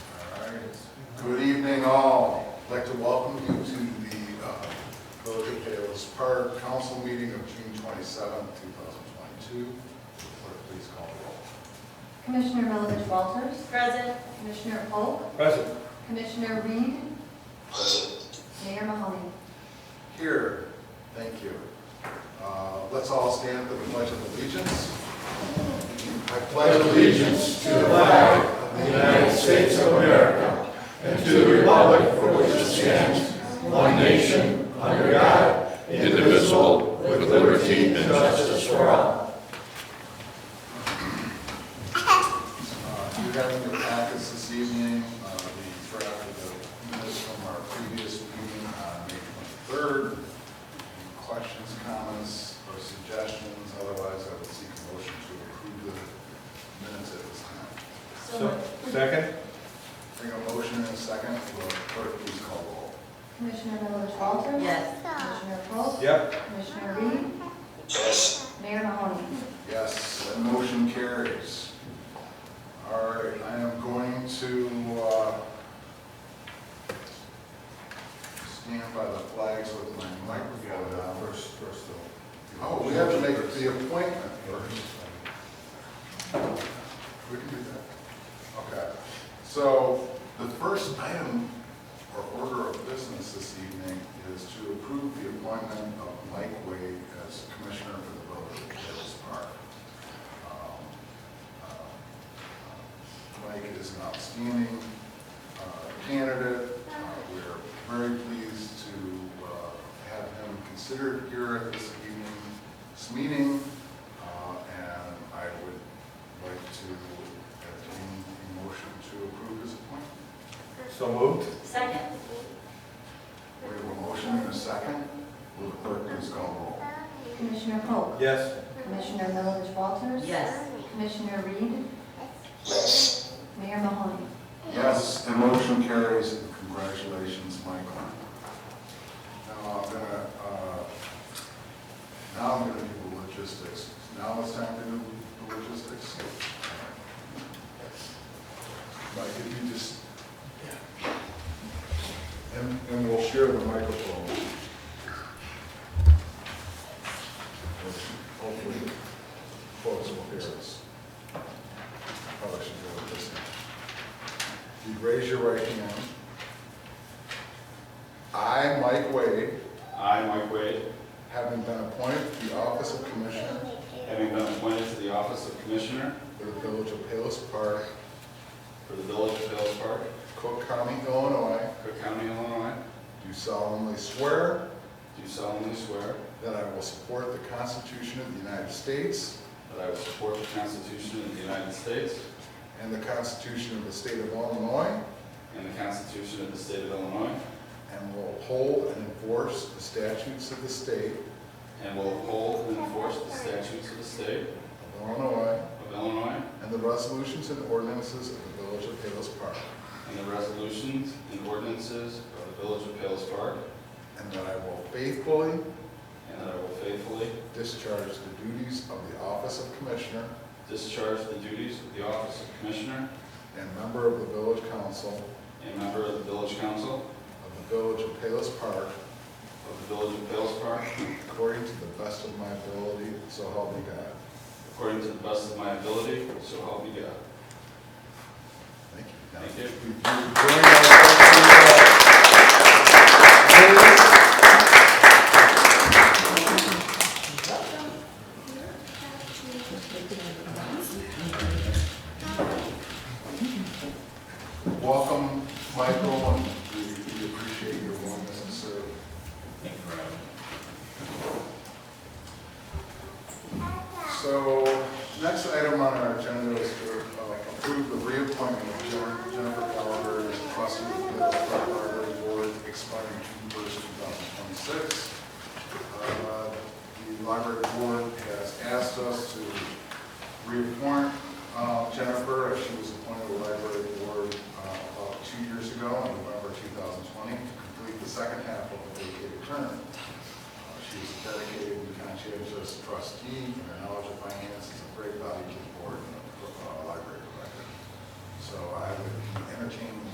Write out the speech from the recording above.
Good evening, all. I'd like to welcome you to the uh, Village of Payless Park Council Meeting of June 27, 2022. Clerk, please call the roll. Commissioner Milovich Walters, Present. Commissioner Polk, Present. Commissioner Reed, Mayor Mahoney. Here, thank you. Uh, Let's all stand for the Pledge of Allegiance. I pledge allegiance to the flag of the United States of America and to the republic for which it stands, one nation, under God, indivisible, with liberty and justice for all. Uh, You have in your packets this evening, uh, the draft of the minutes from our previous meeting on May 23rd. Any Questions, comments, or suggestions? Otherwise, I would seek a motion to approve the minutes at this time. So- Second? Bring a motion in a second. Will clerk please call roll? Commissioner Milovich Walters. Yes. Commissioner Polk, Yep. Commissioner Reed. Mayor Mahoney. Yes, that motion carries. All right, I am going to uh, stand by the flags with my microphone on first. first though. Oh, we have to make the appointment first. We can do that. Okay, so the first item or order of business this evening is to approve the appointment of Mike Wade as Commissioner for the Village of Payless Park. Um, uh, Mike is an outstanding uh, candidate. Uh, We're very pleased to uh, have him considered here at this evening's meeting. Uh, And I would like to entertain a motion to approve his appointment. So moved? Second. We have a motion and a second. Will the clerk please call Commissioner Polk, Yes. Commissioner Milovich Walters. Yes. Commissioner Reed, Mayor Mahoney. the roll? Yes, the motion carries. Congratulations, Michael. Now I'm gonna, uh, now I'm gonna do the logistics. Now it's time to do the logistics. Mike, if you just, and, and we'll share the microphone. Hopefully, folks will hear us. Probably should go with this. You raise your right hand. I, Mike Wade, I, Mike Wade, having been appointed to the office of Commissioner having been appointed to the office of Commissioner for the Village of Palos Park, for the Village of Vales Park, Cook County, Illinois, Cook County, Illinois, do solemnly swear do solemnly swear that I will support the Constitution of the United States that I will support the Constitution of the United States and the Constitution of the State of Illinois, and the Constitution of the State of Illinois, and will uphold and enforce the statutes of the State and will uphold and enforce the statutes of the State of Illinois of Illinois and the resolutions and ordinances of the Village of Palos Park, and the resolutions and ordinances of the Village of Vales Park, and that I will faithfully and that I will faithfully discharge the duties of the office of Commissioner discharge the duties of the office of Commissioner and member of the Village Council and member of the Village Council of the Village of Palos Park of the Village of Vales Park according to the best of my ability, so help me God. according to the best of my ability, so help me God. Thank you. Now, Thank you. if you join us, please. Welcome, Michael, and we we appreciate your willingness to serve. Thank you for having me. So, next item on our agenda is to uh, approve the reappointment of Jen- Jennifer Gallagher as trustee of the Park Library Board expiring June first, two thousand twenty-six. Uh, The library board has asked us to reappoint uh, Jennifer as she was appointed to the library board uh, about two years ago, in November two thousand twenty, to complete the second half of her vacated term. Uh, She is a dedicated and conscientious trustee, and her knowledge of finance is of great value to the board and the uh, library director. So I would entertain